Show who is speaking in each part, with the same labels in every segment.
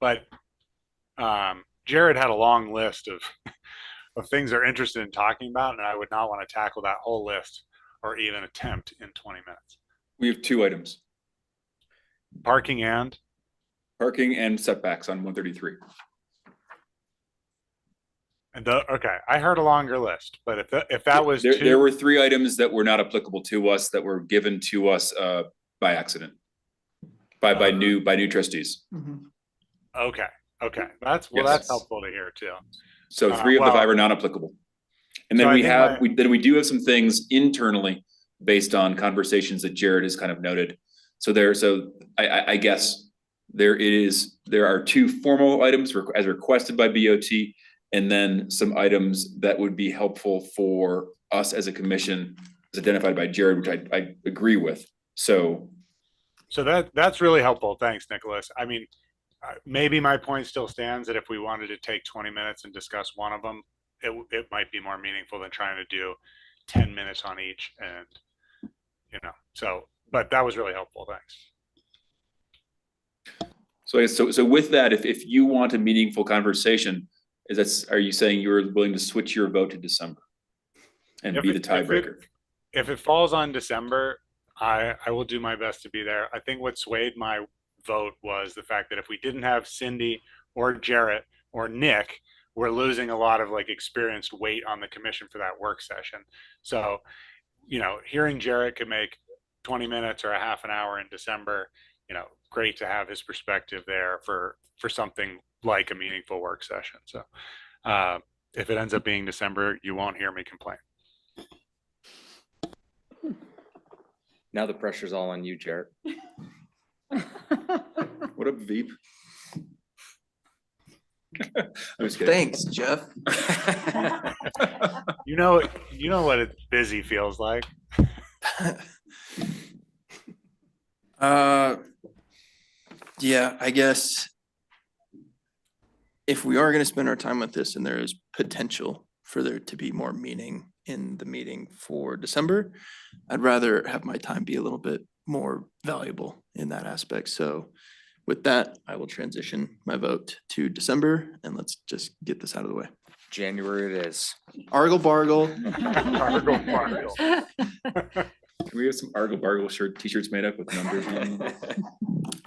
Speaker 1: But um, Jared had a long list of of things they're interested in talking about, and I would not want to tackle that whole list or even attempt in 20 minutes.
Speaker 2: We have two items,
Speaker 1: Parking and
Speaker 2: parking and setbacks on one thirty-three.
Speaker 1: and the okay, I heard a longer list, but if tha- if that was
Speaker 2: There,
Speaker 1: too,
Speaker 2: there were three items that were not applicable to us that were given to us, uh, by accident. By, by new, by new trustees.
Speaker 1: okay, okay, that's well,
Speaker 2: Yes.
Speaker 1: that's helpful to hear too.
Speaker 2: So
Speaker 1: Uh,
Speaker 2: three of the
Speaker 1: well-
Speaker 2: five are non-applicable. And
Speaker 1: So
Speaker 2: then
Speaker 1: I
Speaker 2: we
Speaker 1: think
Speaker 2: have,
Speaker 1: my-
Speaker 2: we, then we do have some things internally based on conversations that Jared has kind of noted. So there, so I, I, I guess there is, there are two formal items requ- as requested by BOT. And then some items that would be helpful for us as a commission as identified by Jared, which I, I agree with. So
Speaker 1: So that that's really helpful. Thanks, Nicholas. I mean, uh, maybe my point still stands that if we wanted to take 20 minutes and discuss one of them, it w- it might be more meaningful than trying to do 10 minutes on each and you know. So, but that was really helpful. Thanks.
Speaker 2: So I guess, so, so with that, if, if you want a meaningful conversation, is that's, are you saying you're willing to switch your vote to December? And
Speaker 1: If
Speaker 2: be the
Speaker 1: it- if it-
Speaker 2: tiebreaker?
Speaker 1: if it falls on December, I, I will do my best to be there. I think what swayed my vote was the fact that if we didn't have Cindy or Jarrett or Nick, we're losing a lot of like experienced weight on the commission for that work session. So, you know, hearing Jarrett could make 20 minutes or a half an hour in December, you know, great to have his perspective there for, for something like a meaningful work session. So, uh, if it ends up being December, you won't hear me complain.
Speaker 3: Now the pressure's all on you, Jarrett.
Speaker 2: What up, Veep? I'm just kidding.
Speaker 3: Thanks, Jeff.
Speaker 1: You know, you know what it busy feels like.
Speaker 4: Uh, yeah, I guess if we are gonna spend our time with this and there is potential for there to be more meaning in the meeting for December, I'd rather have my time be a little bit more valuable in that aspect. So with that, I will transition my vote to December and let's just get this out of the way.
Speaker 3: January it is.
Speaker 4: Argle bargle.
Speaker 2: Uh-huh.
Speaker 1: Argle bargle.
Speaker 2: Can we have some Argle Bargle shirt, t-shirts made up with numbers on them?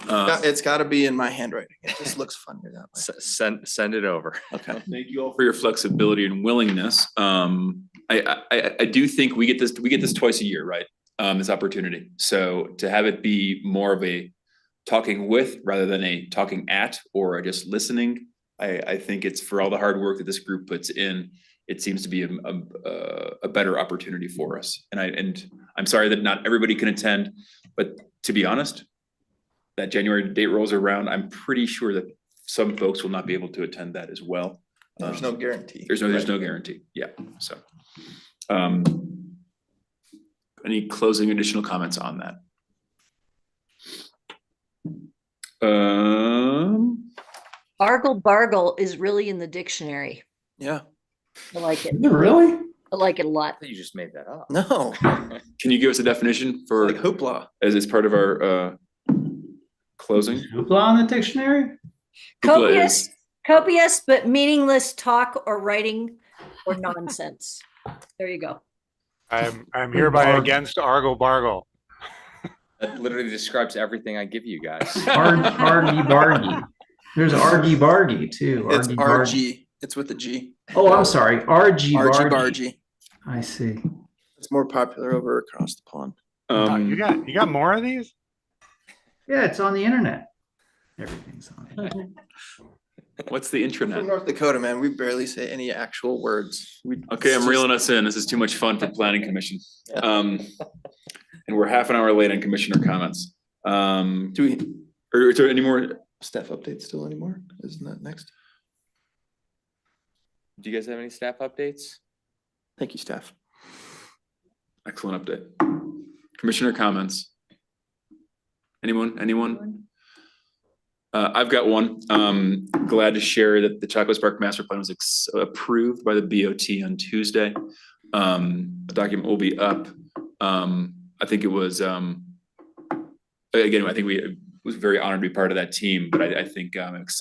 Speaker 4: Uh,
Speaker 2: Uh,
Speaker 4: It's gotta be in my handwriting. It just looks funnier that way.
Speaker 3: S- Send, send it over.
Speaker 4: Okay.
Speaker 2: Thank you all for your flexibility and willingness. Um, I, I- I, I do think we get this, we get this twice a year, right? Um, this opportunity. So to have it be more of a talking with rather than a talking at or a just listening. I, I think it's for all the hard work that this group puts in, it seems to be a, a, a- a better opportunity for us. And I, and I'm sorry that not everybody can attend, but to be honest, that January date rolls around, I'm pretty sure that some folks will not be able to attend that as well.
Speaker 4: There's
Speaker 2: Um,
Speaker 4: no guarantee.
Speaker 2: There's no, there's
Speaker 4: Right.
Speaker 2: no guarantee, yeah, so. Um, any closing additional comments on that? Um,
Speaker 5: Argle bargle is really in the dictionary.
Speaker 4: Yeah,
Speaker 5: I like it.
Speaker 2: really?
Speaker 5: I like it a lot.
Speaker 3: I thought You just made that up.
Speaker 4: no,
Speaker 2: Can you give us a definition
Speaker 4: like
Speaker 2: for,
Speaker 4: hoopla.
Speaker 2: as it's part of our, uh, closing?
Speaker 6: Hoopla in the dictionary?
Speaker 2: Hoopla
Speaker 5: Copious,
Speaker 2: is-
Speaker 5: copious, but meaningless talk or writing or nonsense. There you go.
Speaker 1: I'm I'm hereby against Argle Bargle.
Speaker 3: That literally describes everything I give you guys.
Speaker 6: Argy, argy bargy. There's argy bargy too.
Speaker 4: It's
Speaker 6: Argy bargy.
Speaker 4: RG. It's with a G.
Speaker 6: Oh, I'm sorry, argy
Speaker 4: RG
Speaker 6: bargy.
Speaker 4: bargy.
Speaker 6: I see.
Speaker 4: It's more popular over across the pond.
Speaker 1: Oh,
Speaker 2: Um,
Speaker 1: you got you got more of these?
Speaker 6: Yeah, it's on the internet. Everything's on. the internet.
Speaker 2: what's the
Speaker 4: From
Speaker 2: intranet?
Speaker 4: North Dakota, man, we barely say any actual words. We-
Speaker 2: Okay,
Speaker 4: it's
Speaker 2: I'm
Speaker 4: just-
Speaker 2: reeling us in. This is too much fun for planning commission.
Speaker 4: Yeah.
Speaker 2: Um, and we're half an hour late on commissioner comments. Um,
Speaker 4: Do we
Speaker 2: are, is there any more?
Speaker 4: staff updates still anymore? Isn't that next?
Speaker 3: Do you guys have any staff updates?
Speaker 4: Thank you, staff.
Speaker 2: Excellent update. Commissioner comments? Anyone, anyone? Uh, I've got one. Um, glad to share that the Chocolate Spark Master Plan was ex- approved by the BOT on Tuesday. Um, the document will be up. Um, I think it was, um, again, I think we, was very honored to be part of that team, but I, I think I'm excited